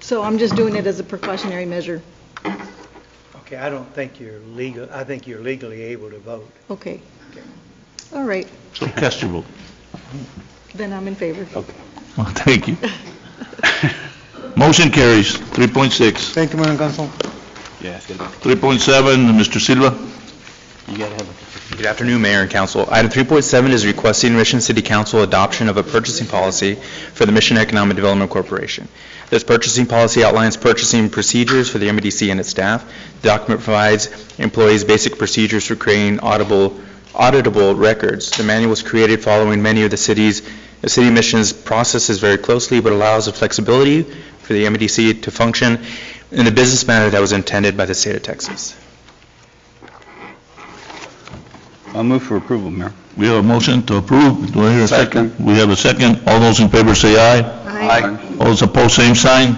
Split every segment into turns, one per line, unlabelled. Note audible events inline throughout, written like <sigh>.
So I'm just doing it as a precautionary measure.
Okay, I don't think you're legal, I think you're legally able to vote.
Okay. All right,
So cast your vote. <laughs>
then I'm in favor.
Well, thank you. <laughs> Motion carries, 3.6.
Thank you, Mayor and Council.
Yeah, it's gonna
3.7, Mr. Silva.
be- you gotta have a,
Good afternoon, Mayor and Council. Item 3.7 is requesting Mission City Council adoption of a purchasing policy for the Mission Economic Development Corporation. This purchasing policy outlines purchasing procedures for the MDC and its staff. The document provides employees basic procedures for creating audible- auditable records. The manual was created following many of the city's, the city mission's processes very closely, but allows the flexibility for the MDC to function in the business manner that was intended by the state of Texas.
I'll move for approval, Mayor.
We have a motion to approve. Do I hear a second?
Second.
We have a second. All those in favor say aye.
Aye.
All those opposed, same sign.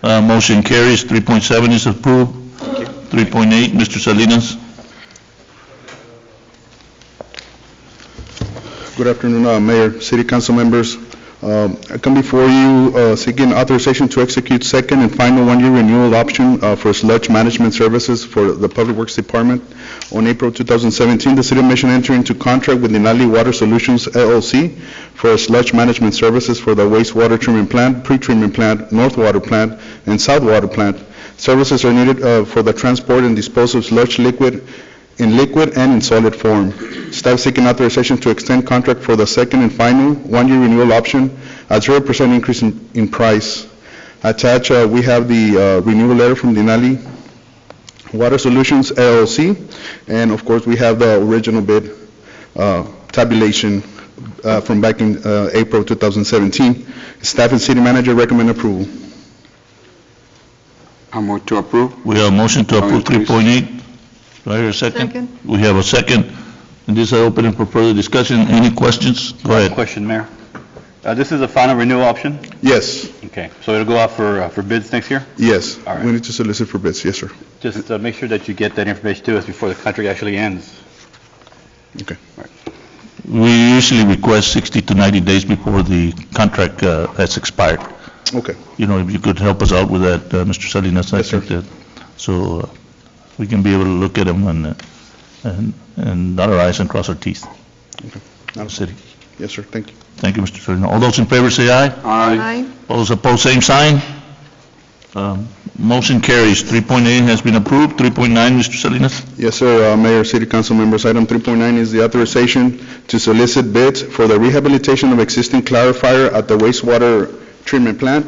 Uh, Motion carries, 3.7 is approved. 3.8, Mr. Salinas.
Good afternoon, uh, Mayor, City Council members. Um, I come before you uh, seeking authorization to execute second and final one-year renewal option uh, for sludge management services for the Public Works Department. On April 2017, the City of Mission entered into contract with Denali Water Solutions LLC for sludge management services for the wastewater treatment plant, pre-treatment plant, north water plant, and south water plant. Services are needed uh, for the transport and disposal of sludge liquid in liquid and in solid form. Staff seeking authorization to extend contract for the second and final one-year renewal option at 0% increase in in price. Attached, uh, we have the uh, renewal letter from Denali Water Solutions LLC, and of course, we have the original bid uh, tabulation uh, from back in uh, April 2017. Staff and city manager recommend approval.
I'll move to approve.
We have a motion to approve
Second, please.
3.8. Do I hear a second?
Second.
We have a second. And this I open it for further discussion. Any questions? Go ahead.
Question, Mayor. Uh, This is the final renewal option?
Yes,
Okay, so it'll go out for uh, for bids next year?
yes.
All right.
We need to solicit for bids, yes, sir.
Just uh, make sure that you get that information to us before the contract actually ends.
Okay.
We usually request 60 to 90 days before the contract uh, has expired.
Okay.
You know, if you could help us out with that, uh, Mr. Salinas, I
Yes, sir.
think that, so uh, we can be able to look at them and, uh, and and dot our i's and cross our teeth.
Madam
City.
Yes, sir, thank you.
Thank you, Mr. Salinas. All those in favor say aye.
Aye.
All those opposed, same sign. Um, Motion carries. 3.8 has been approved. 3.9, Mr. Salinas.
Yes, sir, Uh, Mayor, City Council members, item 3.9 is the authorization to solicit bids for the rehabilitation of existing clarifier at the wastewater treatment plant.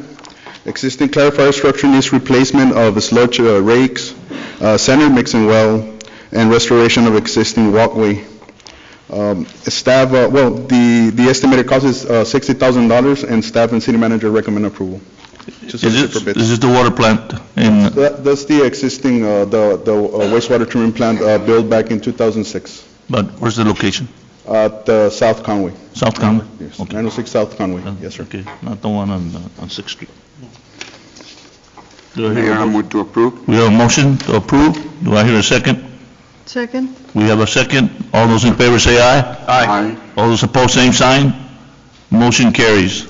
Existing clarifier structure needs replacement of sludge uh, rakes, uh, center mixing well, and restoration of existing walkway. Um, Staff, uh, well, the the estimated cost is uh, $60,000, and staff and city manager recommend approval. to
Is
solicit
this,
for bids.
is this the water plant in,
That- That's the existing, uh, the the uh, wastewater treatment plant uh, built back in 2006
but where's the location?
at uh, South Conway.
South Conway?
Yes,
Okay. Uh,
906 South Conway, yes, sir.
Okay, not the one on, uh, on Sixth Street. Do I hear
Mayor,
a
I move to approve.
We have a motion to approve. Do I hear a second?
Second?
We have a second. All those in favor say aye.
Aye.
All those opposed, same sign. Motion carries.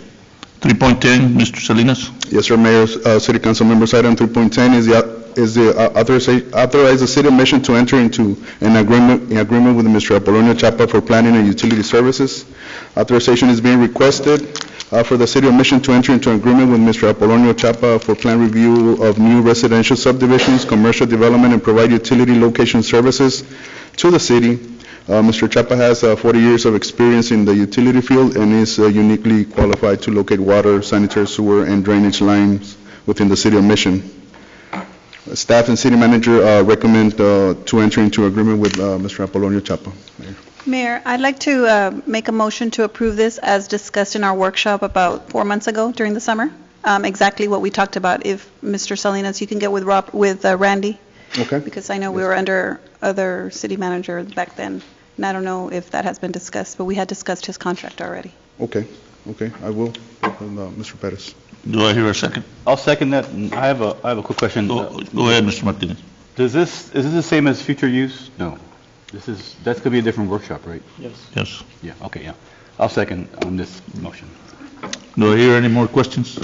3.10, Mr. Salinas.
Yes, sir, Mayor, uh, City Council members, item 3.10 is the is the uh, authoriza- authorize the city mission to enter into an agreement, an agreement with Mr. Apolonio Chapa for planning and utility services. Authorization is being requested uh, for the city of Mission to enter into an agreement with Mr. Apolonio Chapa for plan review of new residential subdivisions, commercial development, and provide utility location services to the city. Uh, Mr. Chapa has uh, 40 years of experience in the utility field and is uh, uniquely qualified to locate water, sanitary sewer, and drainage lines within the city of Mission. Staff and city manager uh, recommend uh, to enter into agreement with uh, Mr. Apolonio Chapa.
Mayor, I'd like to uh, make a motion to approve this as discussed in our workshop about four months ago during the summer, Um, exactly what we talked about. If, Mr. Salinas, you can get with Rob, with uh, Randy,
Okay?
because I know we were under other city manager back then, and I don't know if that has been discussed, but we had discussed his contract already.
Okay, okay, I will. And, uh, Mr. Perez.
Do I hear a second?
I'll second that. And I have a, I have a quick question.
Go go ahead, Mr. Martinez.
Does this, is this the same as future use? No. This is, that's going to be a different workshop, right?
Yes.
Yeah, okay, yeah. I'll second on this motion.
Do I hear any more questions?